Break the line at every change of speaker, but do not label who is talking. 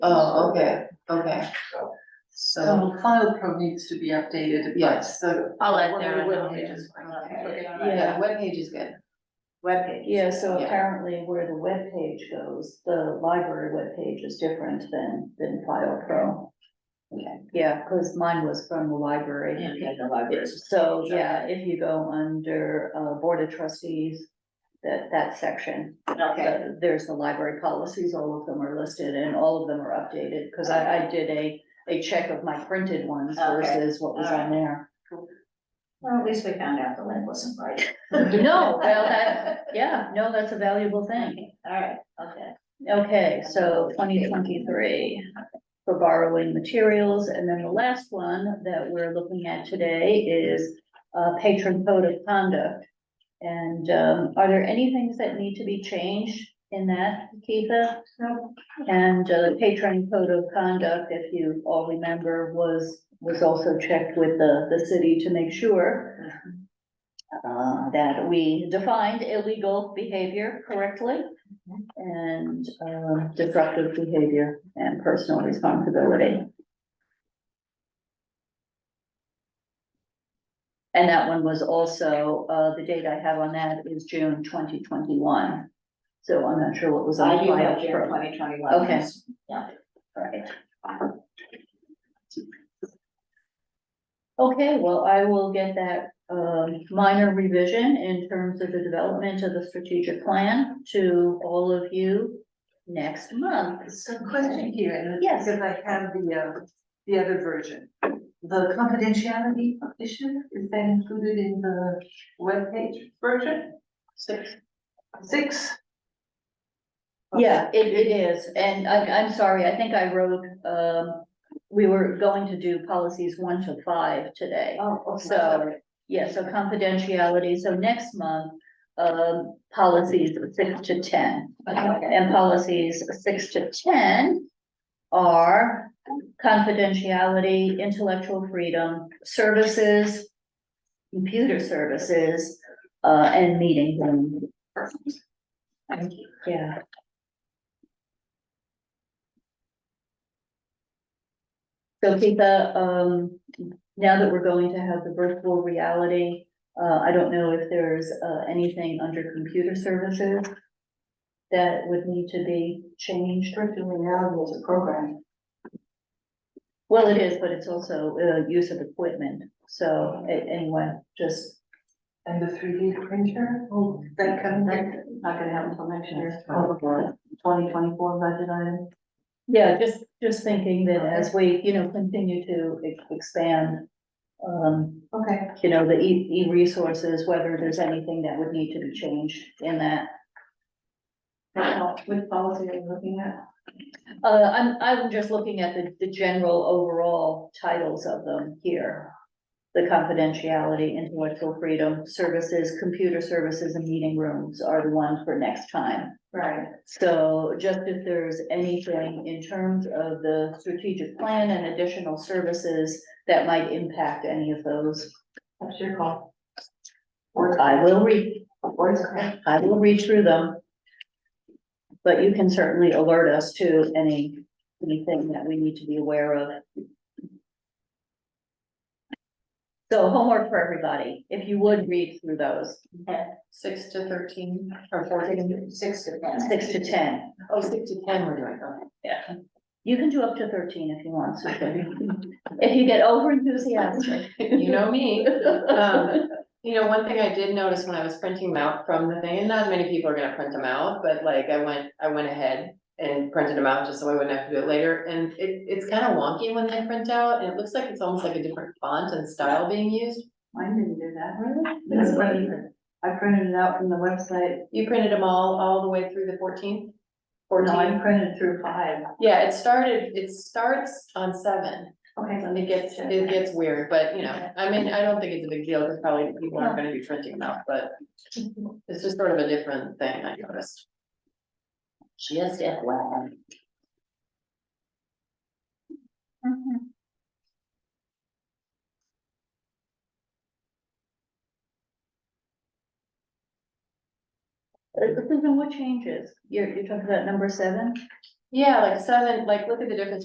Oh, okay, okay. So,
So file pro needs to be updated, but
yes, so,
I'll let
Well,
Darren
we
know.
will,
They
yeah.
just-
Okay.
Put it on
Yeah.
our
yeah, webpage is good.
Webpage.
Yeah, so
Yeah.
apparently where the webpage goes, the library webpage is different than, than File Pro.
Okay.
Yeah, cause mine was from the library. So, yeah, if you go under, uh, Board of Trustees, that, that section,
Okay,
uh, there's the library policies, all of them are listed and all of them are updated. Cause I, I did a, a check of my printed ones
Okay.
versus what was on there.
Well, at least we found out the link wasn't right.
No, well, that, yeah, no, that's a valuable thing.
All right, okay.
Okay, so twenty twenty-three for borrowing materials, and then the last one that we're looking at today is uh patron code of conduct. And um, are there any things that need to be changed in that, Keitha?
No.
And uh, the patron code of conduct, if you all remember, was, was also checked with the, the city to make sure uh, that we defined illegal behavior correctly and um, disruptive behavior and personal responsibility. And that one was also, uh, the date I have on that is June twenty twenty-one. So I'm not sure what was on
I
file.
do have
for-
June twenty twenty-one.
Okay. Right. Okay, well, I will get that um minor revision in terms of the development of the strategic plan to all of you next month.
so question here, and
Yes.
it's because I have the uh, the other version. The confidentiality issue, is that included in the webpage version?
Six.
Six?
Yeah, it it is, and I I'm sorry, I think I wrote um, we were going to do policies one to five today.
Oh, okay.
So, yeah, so confidentiality, so next month, um, policies six to ten.
Okay.
and policies six to ten are confidentiality, intellectual freedom, services, computer services, uh, and meeting room.
Thank you.
Yeah. So Keitha, um, now that we're going to have the virtual reality, uh, I don't know if there's, uh, anything under computer services that would need to be changed.
Restricted reality as a program.
Well, it is, but it's also, uh, use of equipment. So a- anyway, just,
And the three D printer, oh, that kind of thing.
Not gonna happen till next year.
Twenty twenty-four budget item.
yeah, just, just thinking that as we, you know, continue to ex- expand, um,
Okay.
you know, the E, E-resources, whether there's anything that would need to be changed in that.
Which policy are you looking at?
Uh, I'm, I'm just looking at the, the general overall titles of them here. The confidentiality, intellectual freedom, services, computer services and meeting rooms are the ones for next time.
Right.
So just if there's anything in terms of the strategic plan and additional services that might impact any of those,
That's your call.
I will read
Or it's correct.
I will read through them. But you can certainly alert us to any, anything that we need to be aware of. So homework for everybody, if you would read through those,
Six to thirteen or fourteen?
Six to ten.
six to ten.
Oh, six to ten we're doing, okay.
You can do up to thirteen if you want, Susan. If you get over enthusiastic.
You know me. Um, You know, one thing I did notice when I was printing them out from the thing, and not many people are gonna print them out, but like I went, I went ahead and printed them out just so I wouldn't have to do it later. And it, it's kind of wonky when they print out and it looks like it's almost like a different font and style being used.
Mine didn't do that.
That's funny.
I printed it out from the website,
You printed them all, all the way through the fourteenth?
no, I
Fourteen?
printed through five.
Yeah, it started, it starts on seven.
Okay,
It gets, it gets weird, but you know, I mean, I don't think it's a big deal because probably people aren't gonna be printing them out, but it's just sort of a different thing I noticed.
Just FYI.
Mm-hmm. Uh, Susan, what changes? You're, you're talking about number seven?
Yeah, like seven, like look at the difference